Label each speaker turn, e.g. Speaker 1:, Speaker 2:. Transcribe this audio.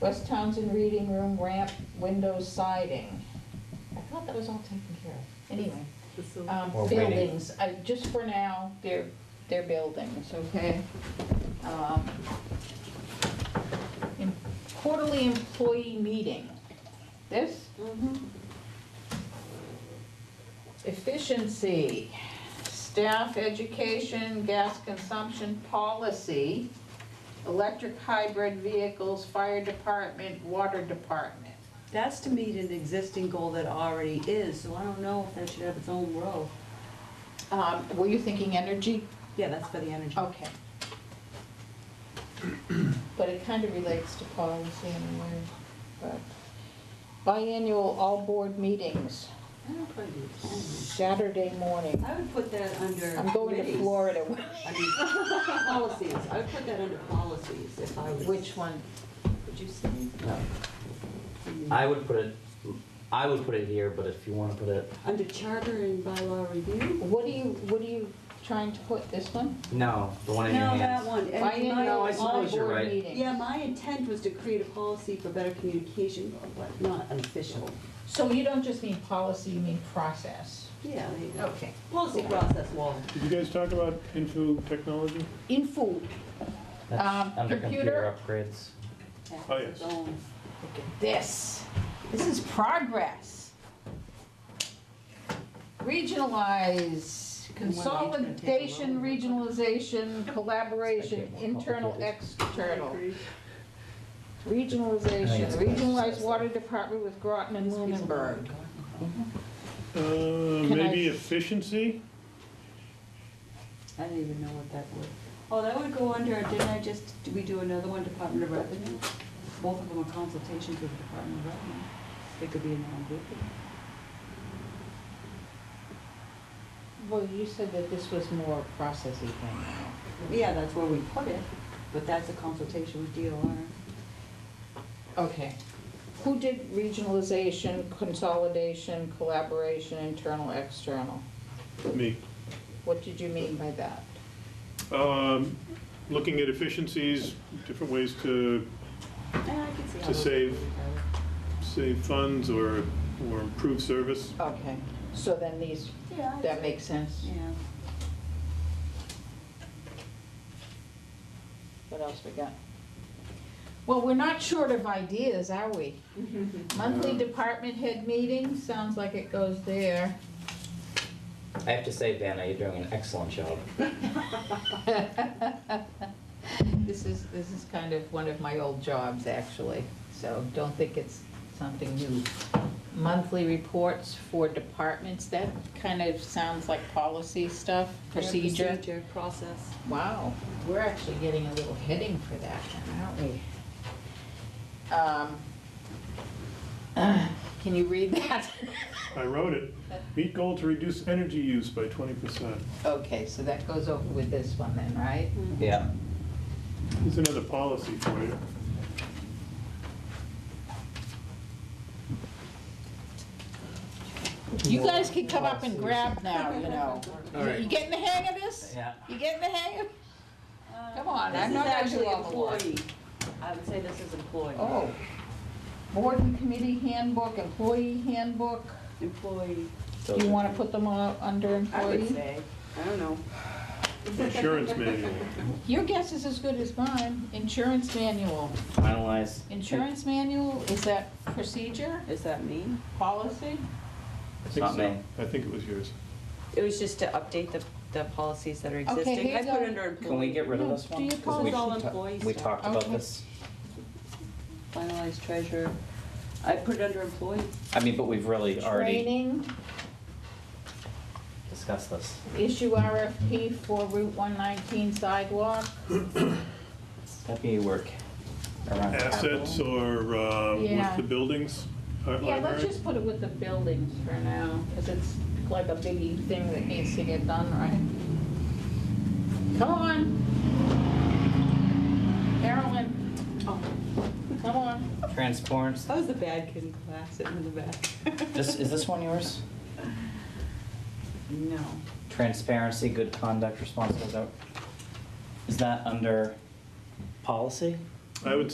Speaker 1: West Townsend Reading Room ramp, window siding. I thought that was all taken care of. Anyway, um,
Speaker 2: Or reading.
Speaker 1: buildings, I, just for now, they're, they're buildings, okay? Um, in- Quarterly employee meeting. This, Efficiency, staff education, gas consumption policy, electric hybrid vehicles, fire department, water department.
Speaker 3: That's to meet an existing goal that already is, so I don't know if that should have its own role.
Speaker 1: Um, Were you thinking energy?
Speaker 3: Yeah, that's for the energy.
Speaker 1: Okay. But it kind of relates to policy anyway. But Biannual all board meetings,
Speaker 3: I don't put it in the
Speaker 1: Saturday morning.
Speaker 3: plan. I would put that under.
Speaker 1: I'm going to
Speaker 3: committees.
Speaker 1: Florida.
Speaker 3: I mean, Policies, I would put that under policies if I was.
Speaker 1: Which one?
Speaker 3: Would you say?
Speaker 2: I would put it, I would put it here, but if you wanna put it,
Speaker 3: Under charter and bylaw review?
Speaker 1: What do you, what are you trying to put, this one?
Speaker 2: no, the one in your
Speaker 3: No, that
Speaker 2: hands.
Speaker 3: one. And my-
Speaker 1: Biannual
Speaker 2: I
Speaker 1: all
Speaker 2: suppose you're
Speaker 1: board
Speaker 2: right.
Speaker 1: meetings.
Speaker 3: Yeah, my intent was to create a policy for better communication, but not an official.
Speaker 1: So you don't just mean policy, you mean process?
Speaker 3: Yeah, there you go.
Speaker 1: Okay.
Speaker 3: Policy process wall.
Speaker 4: Did you guys talk about info technology?
Speaker 1: In food,
Speaker 2: That's
Speaker 1: Um,
Speaker 2: Under
Speaker 1: computer.
Speaker 2: computer upgrades.
Speaker 3: That's
Speaker 4: Oh,
Speaker 3: its
Speaker 4: yes.
Speaker 3: own.
Speaker 1: look at this. This is progress. Regionalize, consolidation, regionalization, collaboration, internal, external. Regionalization, regionalized water department with Groton and Lunenburg.
Speaker 4: Uh,
Speaker 1: Can I-
Speaker 4: maybe efficiency?
Speaker 3: I didn't even know what that would. Oh, that would go under, didn't I just, did we do another one, Department of Revenue? Both of them are consultations with the Department of Revenue. They could be in their own group.
Speaker 1: Well, you said that this was more processy thing.
Speaker 3: Yeah, that's where we put it, but that's a consultation with DOR.
Speaker 1: Okay. Who did regionalization, consolidation, collaboration, internal, external?
Speaker 4: Me.
Speaker 1: What did you mean by that?
Speaker 4: Um, Looking at efficiencies, different ways to
Speaker 3: Yeah, I can see how.
Speaker 4: To
Speaker 3: those-
Speaker 4: save. save funds or, or improve service.
Speaker 1: Okay, so then these,
Speaker 3: Yeah. I-
Speaker 1: that makes sense?
Speaker 3: Yeah.
Speaker 1: What else we got? Well, we're not short of ideas, are we? Monthly department head meeting, sounds like it goes there.
Speaker 2: I have to say, Vanna, you're doing an excellent job.
Speaker 1: This is, this is kind of one of my old jobs, actually, so don't think it's something new. Monthly reports for departments, that kind of sounds like policy stuff,
Speaker 3: Yeah,
Speaker 1: procedure.
Speaker 3: Procedure, process.
Speaker 1: Wow, we're actually getting a little heading for that, then, aren't we? Um, uh, Can you read that?
Speaker 4: I wrote it. Meet goal to reduce energy use by 20%.
Speaker 1: Okay, so that goes over with this one then, right?
Speaker 2: Yeah.
Speaker 4: Here's another policy for you.
Speaker 1: You guys can come up and grab now, you know.
Speaker 2: All right.
Speaker 1: You getting the hang of this?
Speaker 2: Yeah.
Speaker 1: You getting the hang of? Come on,
Speaker 3: This
Speaker 1: I'm
Speaker 3: is
Speaker 1: not gonna do
Speaker 3: actually
Speaker 1: all the work.
Speaker 3: employee. I would say this is employee.
Speaker 1: Oh. Board and committee handbook, employee handbook.
Speaker 3: Employee,
Speaker 2: So
Speaker 1: Do you want to put them all under
Speaker 3: I would
Speaker 1: employee?
Speaker 3: say. I don't know.
Speaker 4: Insurance manual.
Speaker 1: Your guess is as good as mine. Insurance manual.
Speaker 2: Finalize.
Speaker 1: Insurance manual, is that procedure,
Speaker 3: Is that me?
Speaker 1: policy?
Speaker 4: I think
Speaker 2: Not
Speaker 4: so.
Speaker 2: me.
Speaker 4: I think it was yours.
Speaker 3: It was just to update the, the policies that are
Speaker 1: Okay,
Speaker 3: existing.
Speaker 1: here
Speaker 3: I
Speaker 1: you
Speaker 3: put
Speaker 1: go.
Speaker 3: under employee.
Speaker 2: Can we get rid of
Speaker 1: No,
Speaker 2: this
Speaker 1: do
Speaker 2: one?
Speaker 1: you
Speaker 2: 'Cause
Speaker 1: call
Speaker 2: we
Speaker 3: it all
Speaker 2: ta-
Speaker 3: employees
Speaker 2: We
Speaker 3: now?
Speaker 2: talked about
Speaker 1: Okay.
Speaker 2: this.
Speaker 3: Finalized treasurer. I put it under employee.
Speaker 2: I mean, but we've really already
Speaker 1: Training,
Speaker 2: discussed this.
Speaker 1: issue RFP for Route 119 sidewalk.
Speaker 2: That'd be work around capital.
Speaker 4: Assets or uh,
Speaker 1: Oh. Yeah.
Speaker 4: with the buildings? uh,
Speaker 1: Yeah, let's
Speaker 4: library?
Speaker 1: just put it with the buildings for now, because it's like a biggie thing that needs to get done right. Come on. Carolyn,
Speaker 3: Oh,
Speaker 1: come on.
Speaker 2: Transforms.
Speaker 3: that was the bad kid in class sitting in the back.
Speaker 2: This, is this one yours?
Speaker 3: No.
Speaker 2: Transparency, good conduct, responsible, is that- is that under policy?
Speaker 4: I would